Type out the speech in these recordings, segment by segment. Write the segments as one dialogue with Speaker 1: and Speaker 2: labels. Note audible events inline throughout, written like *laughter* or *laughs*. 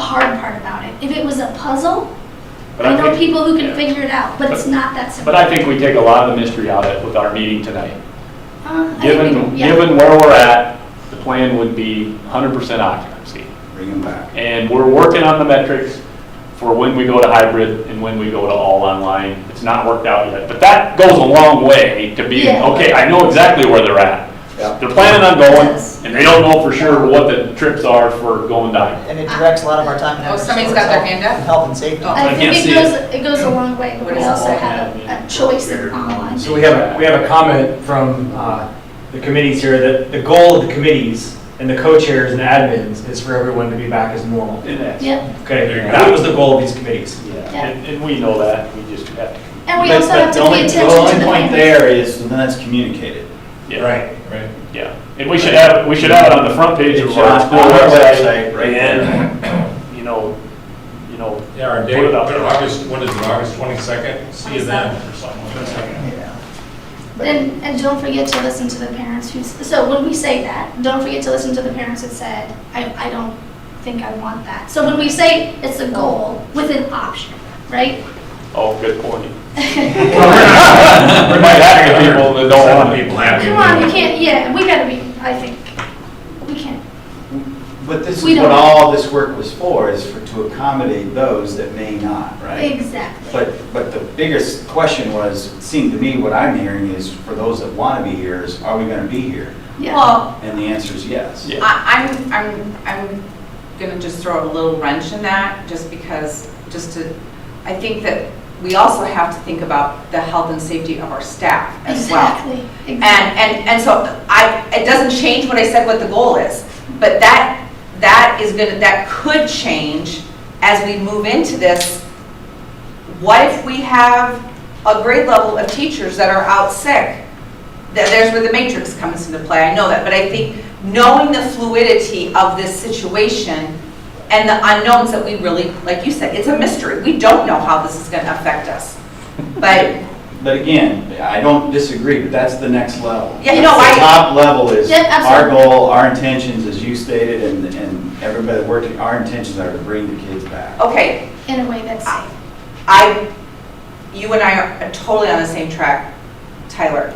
Speaker 1: hard part about it. If it was a puzzle,
Speaker 2: But
Speaker 1: I know
Speaker 2: think-
Speaker 1: people who can
Speaker 2: yeah.
Speaker 1: figure it out, but it's not that simple.
Speaker 2: But I think we take a lot of the mystery out of it with our meeting tonight.
Speaker 1: Uh, I think
Speaker 2: Given,
Speaker 1: we- yeah.
Speaker 2: given where we're at, the plan would be 100% occupancy.
Speaker 3: Bring them back.
Speaker 2: And we're working on the metrics for when we go to hybrid and when we go to all online. It's not worked out yet, but that goes a long way to being,
Speaker 1: Yeah.
Speaker 2: okay, I know exactly where they're at.
Speaker 3: Yeah.
Speaker 2: They're planning on going,
Speaker 1: Yes.
Speaker 2: and they don't know for sure what the trips are for going down.
Speaker 4: And it directs a lot of our time and
Speaker 5: Oh,
Speaker 4: effort.
Speaker 5: somebody's
Speaker 4: towards
Speaker 5: got their
Speaker 4: health-
Speaker 5: hand up?
Speaker 4: Health and safety.
Speaker 5: Oh.
Speaker 1: I
Speaker 2: I
Speaker 1: think
Speaker 2: can't
Speaker 1: it
Speaker 2: see
Speaker 1: goes, it goes a long way, but we
Speaker 5: What is
Speaker 1: also
Speaker 2: all
Speaker 1: have
Speaker 2: that?
Speaker 1: a- a choice in online.
Speaker 6: So we have, a- we have a comment from uh, the committees here that the goal of the committees and the co-chairs and admins is for everyone to be back as normal.
Speaker 2: And that's-
Speaker 1: Yep,
Speaker 6: Okay, that was the goal of these committees.
Speaker 2: yeah, And, and we know that, we just have to.
Speaker 1: and we
Speaker 3: But-
Speaker 1: also
Speaker 3: but
Speaker 1: have to
Speaker 3: the
Speaker 1: pay
Speaker 3: only-
Speaker 1: attention
Speaker 3: The
Speaker 1: to
Speaker 3: only
Speaker 1: the
Speaker 3: point
Speaker 1: language.
Speaker 3: there is, then that's communicated.
Speaker 2: yeah,
Speaker 6: right.
Speaker 2: Yeah, and we should have, we should have it on the front page
Speaker 3: It
Speaker 2: of
Speaker 3: should
Speaker 2: our
Speaker 3: on
Speaker 2: school
Speaker 3: our
Speaker 2: website.
Speaker 3: website, right
Speaker 2: And, you know, you know,
Speaker 7: Yeah, our
Speaker 2: Put
Speaker 7: date,
Speaker 2: it up.
Speaker 7: our August, what is it, August 22nd? See you then, or something like that.
Speaker 4: Yeah.
Speaker 1: And, and don't forget to listen to the parents who, s- so when we say that, don't forget to listen to the parents that said, I, I don't think I want that. So when we say it's a goal with an option, right?
Speaker 2: oh, good point. We might have the people that don't want people.
Speaker 7: happy.
Speaker 1: Come on, we can't, yeah, we gotta be, I think, we can't.
Speaker 3: But this
Speaker 1: We
Speaker 3: is what
Speaker 1: don't-
Speaker 3: all this work was for, is for, to accommodate those that may not, right?
Speaker 1: Exactly.
Speaker 3: But, but the biggest question was, it seemed to me, what I'm hearing is, for those that want to be here, is are we going to be here?
Speaker 1: Yeah.
Speaker 5: Well,
Speaker 3: And the answer is yes.
Speaker 2: Yeah.
Speaker 5: I- I'm, I'm, I'm gonna just throw a little wrench in that, just because, just to, I think that we also have to think about the health and safety of our staff as well.
Speaker 1: Exactly.
Speaker 5: And,
Speaker 1: Exactly.
Speaker 5: and, and so I, it doesn't change what I said what the goal is, but that, that is gonna, that could change as we move into this. What if we have a grade level of teachers that are out sick? Th- There's where the matrix comes into play, I know that, but I think knowing the fluidity of this situation and the unknowns that we really, like you said, it's a mystery. We don't know how this is gonna affect us. But
Speaker 3: But again, I don't disagree, but that's the next level.
Speaker 5: Yeah, no,
Speaker 3: The
Speaker 5: I-
Speaker 3: top level is,
Speaker 1: Yeah,
Speaker 3: our
Speaker 1: absolutely.
Speaker 3: goal, our intentions, as you stated, and, and everybody working, our intentions are to bring the kids
Speaker 1: Oh,
Speaker 3: back.
Speaker 5: Okay,
Speaker 1: In a way that's safe.
Speaker 5: I, you and I are totally on the same track, Tyler.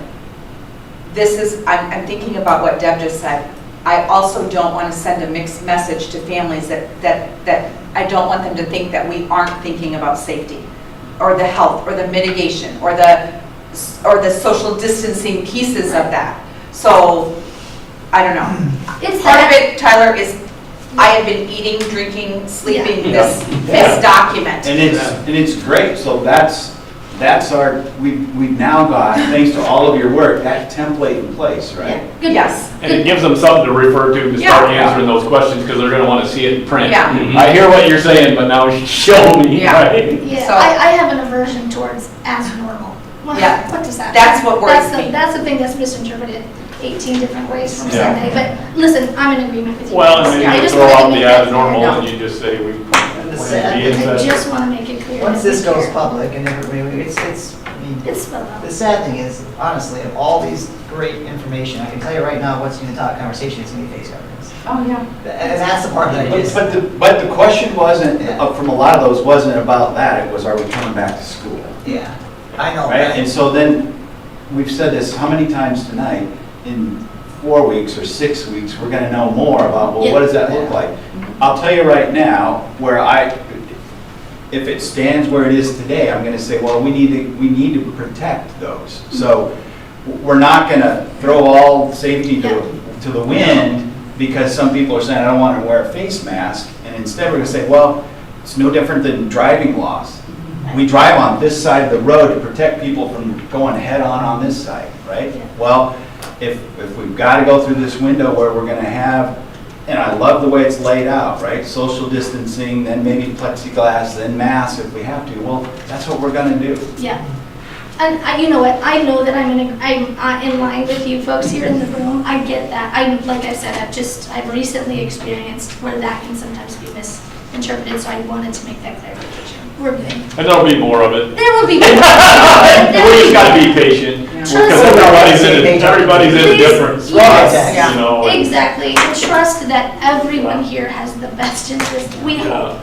Speaker 5: This is, I'm, I'm thinking about what Deb just said. I also don't want to send a mixed message to families that, that, that, I don't want them to think that we aren't thinking about safety, or the health, or the mitigation, or the, s- or the social distancing pieces of that. So, I don't know.
Speaker 1: It's
Speaker 5: Part of
Speaker 1: that,
Speaker 5: it, Tyler, is I have been eating, drinking, sleeping
Speaker 3: Yeah.
Speaker 5: this, this document.
Speaker 3: And it's, and it's great, so that's, that's our, we, we've now got, thanks to all of your work, that template in place,
Speaker 1: yeah,
Speaker 3: right?
Speaker 1: good.
Speaker 5: Yes.
Speaker 2: And it gives them something to refer to to start
Speaker 5: Yeah.
Speaker 2: answering those questions, because they're gonna wanna see it in print.
Speaker 5: Yeah.
Speaker 2: I hear what you're saying, but now show me,
Speaker 5: Yeah.
Speaker 2: right?
Speaker 1: Yeah,
Speaker 5: So-
Speaker 1: I, I have an aversion towards as normal. What-
Speaker 5: Yeah.
Speaker 1: What does that?
Speaker 5: That's
Speaker 1: mean?
Speaker 5: what worries
Speaker 1: That's the-
Speaker 5: me.
Speaker 1: That's the thing that's misinterpreted eighteen different ways from
Speaker 2: Yeah.
Speaker 1: Sunday, but listen, I'm in agreement with you.
Speaker 2: Well, and
Speaker 1: I
Speaker 2: then you
Speaker 1: just
Speaker 2: throw
Speaker 1: wanna
Speaker 2: out
Speaker 1: make
Speaker 2: the
Speaker 1: that
Speaker 2: as normal,
Speaker 1: clear.
Speaker 2: and you just say, we plan
Speaker 4: And
Speaker 2: to be
Speaker 4: the sad,
Speaker 2: in
Speaker 1: I
Speaker 2: session.
Speaker 1: just wanna make it clear.
Speaker 4: once this
Speaker 1: that we
Speaker 4: goes
Speaker 1: care.
Speaker 4: public and everybody, it's, it's, I mean,
Speaker 1: It's spelled out.
Speaker 4: the sad thing is, honestly, of all these great information, I can tell you right now, what's in the top conversation is gonna be face coverings.
Speaker 5: Oh, yeah.
Speaker 4: And that's the part that I
Speaker 3: But
Speaker 4: just,
Speaker 3: but the, but the question wasn't, uh, from a lot of those, wasn't about that, it was, are we coming back to school?
Speaker 4: yeah, I know
Speaker 3: Right,
Speaker 4: that.
Speaker 3: and so then, we've said this how many times tonight, in four weeks or six weeks, we're gonna know more about, well, what does that look like? I'll tell you right now, where I, if it stands where it is today, I'm gonna say, well, we need to, we need to protect those. So, we're not gonna throw all safety
Speaker 1: Yeah.
Speaker 3: to, to the wind, because some people are saying, I don't wanna wear a face mask, and instead we're gonna say, well, it's no different than driving laws. We drive on this side of the road to protect people from going head-on on this side, right?
Speaker 1: Yeah.
Speaker 3: Well, if, if we've got to go through this window where we're going to have, and I love the way it's laid out, right? Social distancing, then maybe plexiglass, then masks if we have to. Well, that's what we're going to do.
Speaker 1: Yeah. And I, you know what, I know that I'm in, a- I'm uh, in line with you folks here in the room, I get that. I, like I said, I've just, I've recently experienced where that can sometimes be misinterpreted, so I wanted to make that clarification. We're good.
Speaker 2: And there'll be more of it.
Speaker 1: There will
Speaker 2: *laughs*
Speaker 1: be.
Speaker 2: We
Speaker 1: There will
Speaker 2: just
Speaker 1: be-
Speaker 2: gotta be patient, because
Speaker 1: Trust me.
Speaker 2: everybody's in, a- everybody's in a different spot,
Speaker 4: Yeah.
Speaker 2: you know? and-
Speaker 1: Exactly, and trust that everyone here has the best interest. We,
Speaker 2: Yeah.